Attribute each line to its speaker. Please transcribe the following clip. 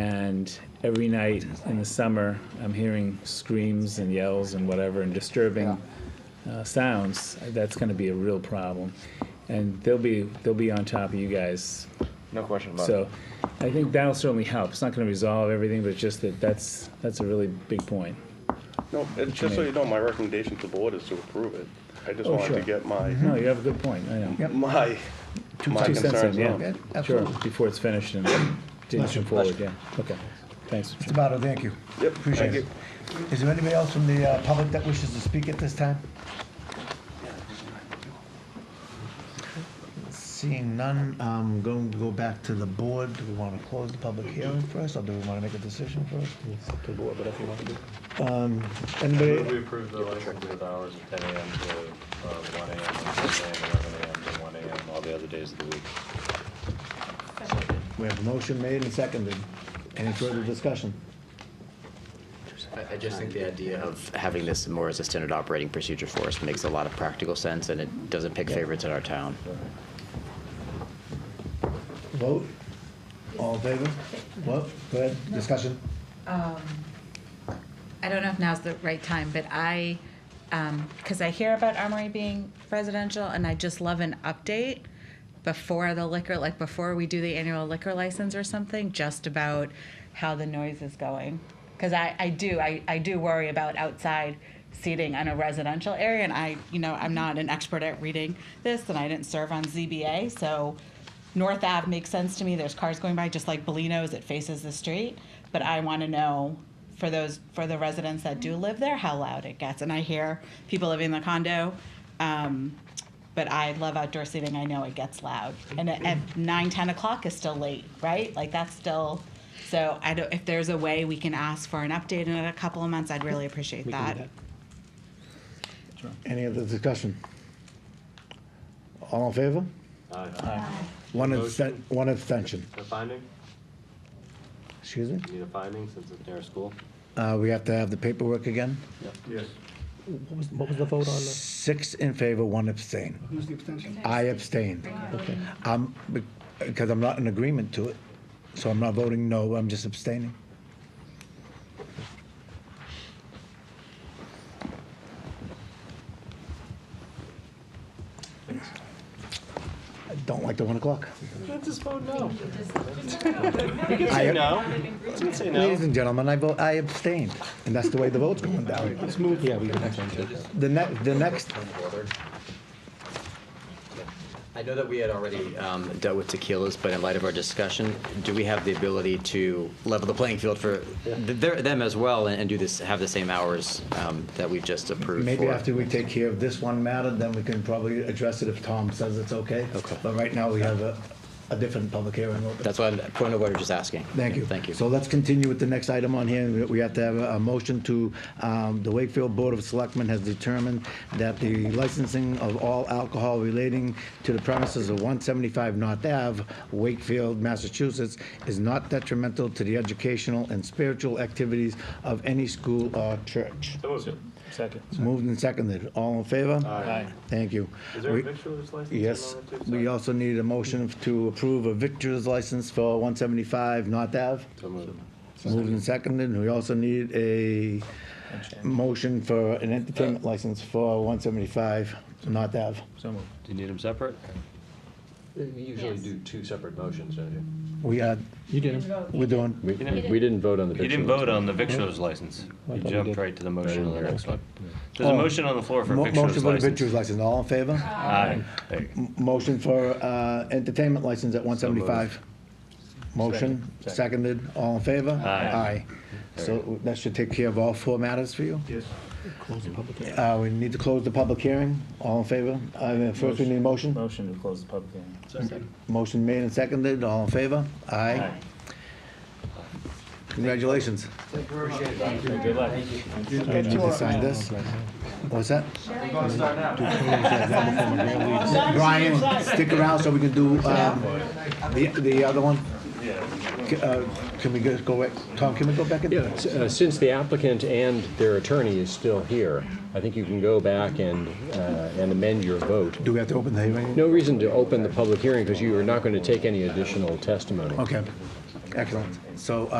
Speaker 1: And every night in the summer, I'm hearing screams and yells and whatever and disturbing uh, sounds. That's going to be a real problem. And they'll be they'll be on top of you guys.
Speaker 2: No question about it.
Speaker 1: So I think that'll certainly help. It's not going to resolve everything, but just that that's that's a really big point.
Speaker 3: No, and just so you know, my recommendation to the board is to approve it. I just
Speaker 1: Oh,
Speaker 3: wanted
Speaker 1: sure.
Speaker 3: to get my,
Speaker 1: No, you have a good point. I know.
Speaker 4: Mm-hmm. Yep.
Speaker 3: my, my
Speaker 1: Two cents in,
Speaker 3: concerns out.
Speaker 1: yeah.
Speaker 4: Yeah, absolutely.
Speaker 1: Sure, before it's finished and didn't
Speaker 4: Pleasure,
Speaker 1: come forward, yeah. Okay, thanks.
Speaker 4: Mr. Botto, thank you.
Speaker 3: Yep,
Speaker 4: Appreciate
Speaker 3: thank
Speaker 4: it. Is there anybody else from the uh, public that wishes to speak at this time? Seeing none, I'm going to go back to the board. Do we want to close the public hearing first, or do we want to make a decision first? Um, Anybody?
Speaker 5: We approved the license with hours of 10 AM to uh, 1 AM, 10 11 AM to 1 AM, all the other days of the week.
Speaker 4: We have a motion made and seconded. Any further discussion?
Speaker 6: I, I just think the idea of having this more as a standard operating procedure for us makes a lot of practical sense, and it doesn't pick favorites in our town.
Speaker 4: Vote? All in favor? What? Go ahead, discussion.
Speaker 7: I don't know if now's the right time, but I, because I hear about Armory being residential, and I just love an update before the liquor, like before we do the annual liquor license or something, just about how the noise is going. Because I, I do, I, I do worry about outside seating in a residential area, and I, you know, I'm not an expert at reading this, and I didn't serve on ZBA, so North Ave makes sense to me. There's cars going by, just like Bolino's, it faces the street. But I want to know for those for the residents that do live there how loud it gets. And I hear people living in the condo. Um, but I love outdoor seating. I know it gets loud, and at, at nine, ten o'clock is still late, right? Like that's still. So I don't. If there's a way we can ask for an update in a couple of months, I'd really appreciate that.
Speaker 4: Any other discussion? All in favor? Uh, One absten- one abstention.
Speaker 5: Uh, The finding,
Speaker 4: Excuse me?
Speaker 5: you need a finding since it's near a school?
Speaker 4: Uh, we have to have the paperwork again.
Speaker 2: Yes.
Speaker 4: What was, what was the vote on? Six in favor, one abstain.
Speaker 8: Who's the abstention?
Speaker 4: I abstained. Okay. I'm, because I'm not in agreement to it, so I'm not voting no, I'm just abstaining. I don't like the one o'clock.
Speaker 5: Just vote no.
Speaker 4: I-
Speaker 5: You can say no.
Speaker 4: Ladies and gentlemen, I vote, I abstained, and that's the way the vote's going down. Let's move. Yeah, we can next one too. The next, the next,
Speaker 6: I know that we had already um, dealt with tequilas, but in light of our discussion, do we have the ability to level the playing field for th- their- them as well and and do this, have the same hours um, that we've just approved
Speaker 4: Maybe
Speaker 6: for?
Speaker 4: after we take care of this one matter, then we can probably address it if Tom says it's okay.
Speaker 6: Okay.
Speaker 4: But right now, we have a, a different public hearing open.
Speaker 6: That's why, point of order, just asking.
Speaker 4: Thank you.
Speaker 6: Thank you.
Speaker 4: So let's continue with the next item on here. We- We have to have a a motion to, um, the Wakefield Board of Selectmen has determined that the licensing of all alcohol relating to the premises of 175 North Ave, Wakefield, Massachusetts, is not detrimental to the educational and spiritual activities of any school or church.
Speaker 1: Second.
Speaker 4: Moved and seconded. All in favor?
Speaker 1: Aye.
Speaker 4: Thank you.
Speaker 5: Is there
Speaker 4: We-
Speaker 5: a victualer's license? in
Speaker 4: Yes,
Speaker 5: Norwood, too?
Speaker 4: we also need a motion to approve a victor's license for 175 North Ave.
Speaker 5: So moved.
Speaker 4: Moved and seconded. We also need a motion for an entertainment license for 175 North Ave.
Speaker 1: So moved.
Speaker 5: Do you need them separate? You usually do two separate motions, don't you?
Speaker 4: We are,
Speaker 9: You didn't.
Speaker 4: we're doing,
Speaker 9: We didn't vote on the
Speaker 2: You
Speaker 9: picture.
Speaker 2: didn't vote on the victualer's license. You
Speaker 9: we
Speaker 2: jumped
Speaker 9: did.
Speaker 2: right to the motion on the next one. There's
Speaker 4: Oh.
Speaker 2: a motion on the floor for a
Speaker 4: mo- motion
Speaker 2: victualer's
Speaker 4: for the
Speaker 2: license.
Speaker 4: victor's license. All in favor?
Speaker 2: Aye. There you go.
Speaker 4: M- Motion for uh, entertainment license at 175. Motion, seconded, all in favor?
Speaker 2: Aye.
Speaker 4: Aye. So that should take care of all four matters for you? Yes. Uh, we need to close the public hearing, all in favor? I mean, First, we need a motion.
Speaker 1: Motion to close the public hearing.
Speaker 4: Motion made and seconded, all in favor? Aye. Congratulations.
Speaker 1: Good luck.
Speaker 4: Need to sign this? What's that? Brian, stick around so we can do um, the the other one. C- uh, Can we go- go, back? Tom, can we go back? in?
Speaker 9: Yeah, s- uh, since the applicant and their attorney is still here, I think you can go back and, uh, and amend your vote.
Speaker 4: Do we have to open the hearing?
Speaker 9: No reason to open the public hearing because you are not going to take any additional testimony.
Speaker 4: Okay, excellent. So uh,